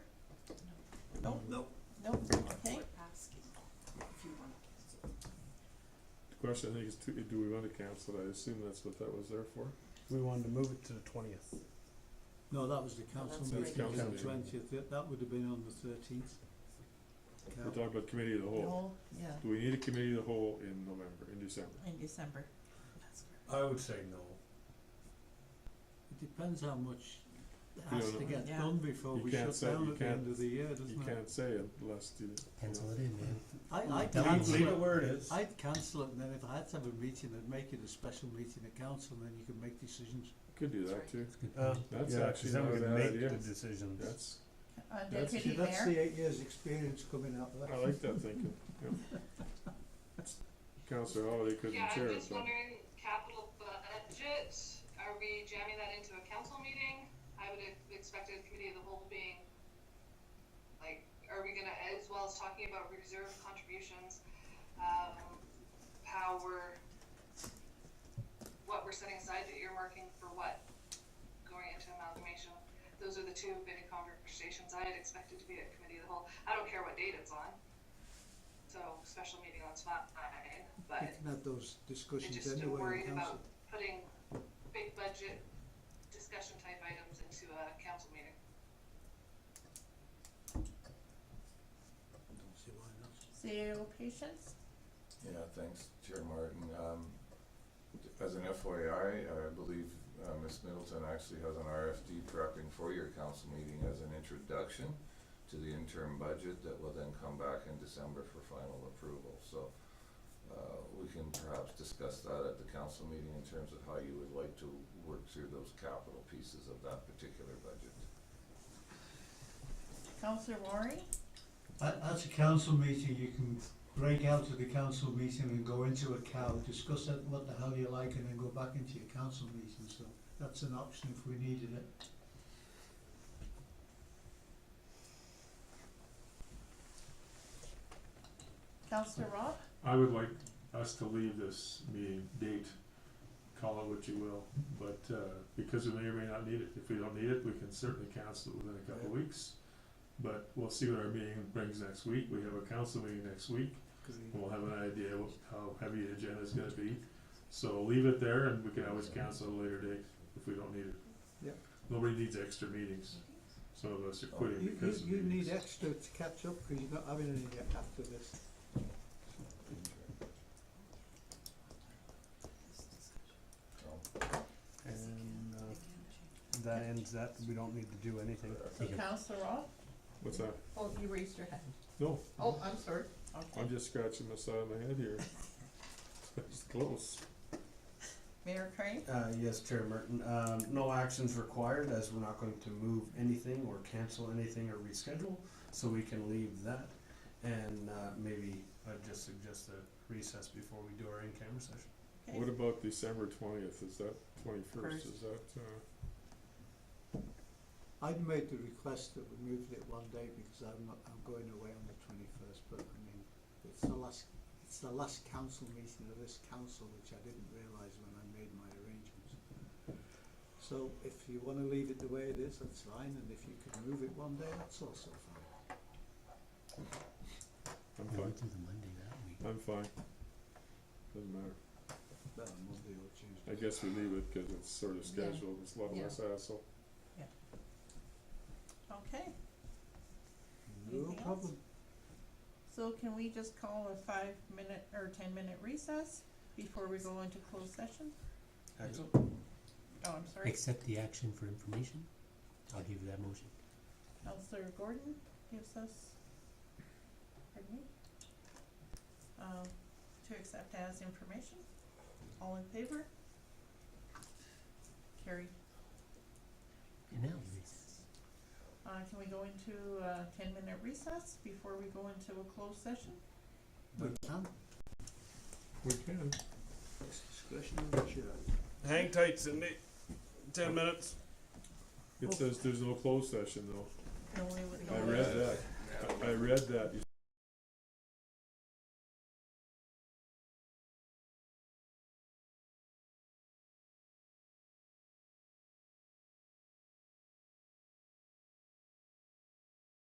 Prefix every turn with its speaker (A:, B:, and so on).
A: question, I think is, to- do we want to cancel it? I assume that's what that was there for.
B: We wanted to move it to the twentieth.
C: No, that was the council
A: That's
C: meeting,
A: council
C: the
A: meeting.
C: twentieth, that that would have been on the thirteenth.
A: We're talking about committee of the whole.
D: yeah,
A: Do we need a committee of the whole in November, in December?
D: in December. That's correct.
B: I would say no.
C: It depends how much
A: uh, You
C: has
A: don't
C: to
A: know.
C: get
D: Yeah.
C: done before
A: You
C: we
A: can't
C: shut
A: say-
C: down
A: you
C: at the
A: can't-
C: end of the year, doesn't it?
A: You can't say it unless you.
E: Pencil it in, man.
C: I, I
E: Tell
B: Leave,
C: cancel
E: Council.
B: leave
C: it,
B: it where it is.
C: I'd cancel it, and then if I had to have a meeting, I'd make it a special meeting of council, and then you can make decisions.
A: Could do that too.
E: That's a good
B: Uh,
E: point.
A: That's
B: yeah, 'cause
A: actually
B: then
A: not
B: we
A: a
B: can
A: bad
B: make
A: idea.
B: the decisions.
A: That's,
D: Uh, the
A: That's-
D: committee
C: that's
D: there,
C: the eight years' experience coming out of
A: I
C: that.
A: like that thinking, yeah. Counselor Holiday couldn't
F: Yeah,
A: chair
F: I'm
A: it,
F: just
A: so.
F: wondering, capital budget, are we jamming that into a council meeting? I would have expected committee of the whole being, like, are we gonna, as well as talking about reserve contributions, um, how we're, what we're setting aside, earmarking for what, going into amalgamation? Those are the two big conversations I had expected to be at committee of the whole. I don't care what date it's on. So special meeting, that's fine, but
C: We can have those
F: I
C: discussions
F: just am
C: anyway
F: worried
C: in council.
F: about putting big budget discussion type items into a council meeting.
C: Don't see why not.
D: zero patients,
G: Yeah, thanks, Chair Martin. Um, as an FYI, I believe, uh, Ms. Middleton actually has an RFD prepping for your council meeting as an introduction to the interim budget that will then come back in December for final approval, so, uh, we can perhaps discuss that at the council meeting in terms of how you would like to work through those capital pieces of that particular budget.
D: Counselor Rory,
C: At, at a council meeting, you can break out of the council meeting and go into a cow, discuss it, what the hell you like, and then go back into your council meeting, so that's an option if we needed it.
D: Counselor Rob,
A: I would like us to leave this meeting date, call it what you will, but, uh, because we may or may not need it. If we don't need it, we can certainly cancel it within a couple of weeks. But we'll see what our meeting brings next week. We have a council meeting next week. We'll have an idea what, how heavy the agenda is gonna be. So leave it there and we can always cancel at a later date if we don't need it.
C: Yep.
A: Nobody needs extra meetings. Some of us are quitting
C: Oh, You, you,
A: because of
C: you
A: meetings.
C: need extra to catch up, because you're not having any after this.
G: So,
B: And uh, that ends that. We don't need to do anything.
D: so Counselor Rob,
A: What's that?
D: oh, you raised your hand,
A: No,
D: oh, I'm sorry, okay,
A: I'm just scratching the side of my head here. It's close.
D: Mayor Crane,
B: Uh, yes, Chair Merton. Um, no actions required as we're not going to move anything or cancel anything or reschedule, so we can leave that. And uh, maybe I'd just suggest a recess before we do our in-camera session.
D: okay.
A: What about December twentieth? Is that twenty-first?
D: First.
A: Is that, uh,
C: I'd made the request that we moved it one day, because I'm not, I'm going away on the twenty-first, but I mean, it's the last, it's the last council meeting of this council, which I didn't realise when I made my arrangements. So if you wanna leave it the way it is, that's fine, and if you could move it one day, that's also fine.
A: I'm
E: We
A: fine.
E: went through the Monday that week.
A: I'm fine. Doesn't matter.
C: Better Monday or Tuesday.
A: I guess we leave it because it's sort of
D: Yeah.
A: scheduled. It's a lot
D: Yeah.
A: less hassle.
D: Okay,
C: No
D: Anything else?
C: problem.
D: so can we just call a five minute or ten minute recess before we go into closed session?
B: Excellent.
D: Oh, I'm sorry,
E: Accept the action for information. I'll give you that motion.
D: Counselor Gordon gives us, pardon me, um, to accept as information. All in favor? Carried.
E: And now the recess.
D: Uh, can we go into a ten-minute recess before we go into a closed session?
C: We can,
A: We can.
C: it's discretion of the chair.
B: Hang tight, Cindy.
A: Oh.
B: Ten minutes.
A: It says there's no closed session though.
D: No, we would
A: I
D: not.
A: read that. I read that. You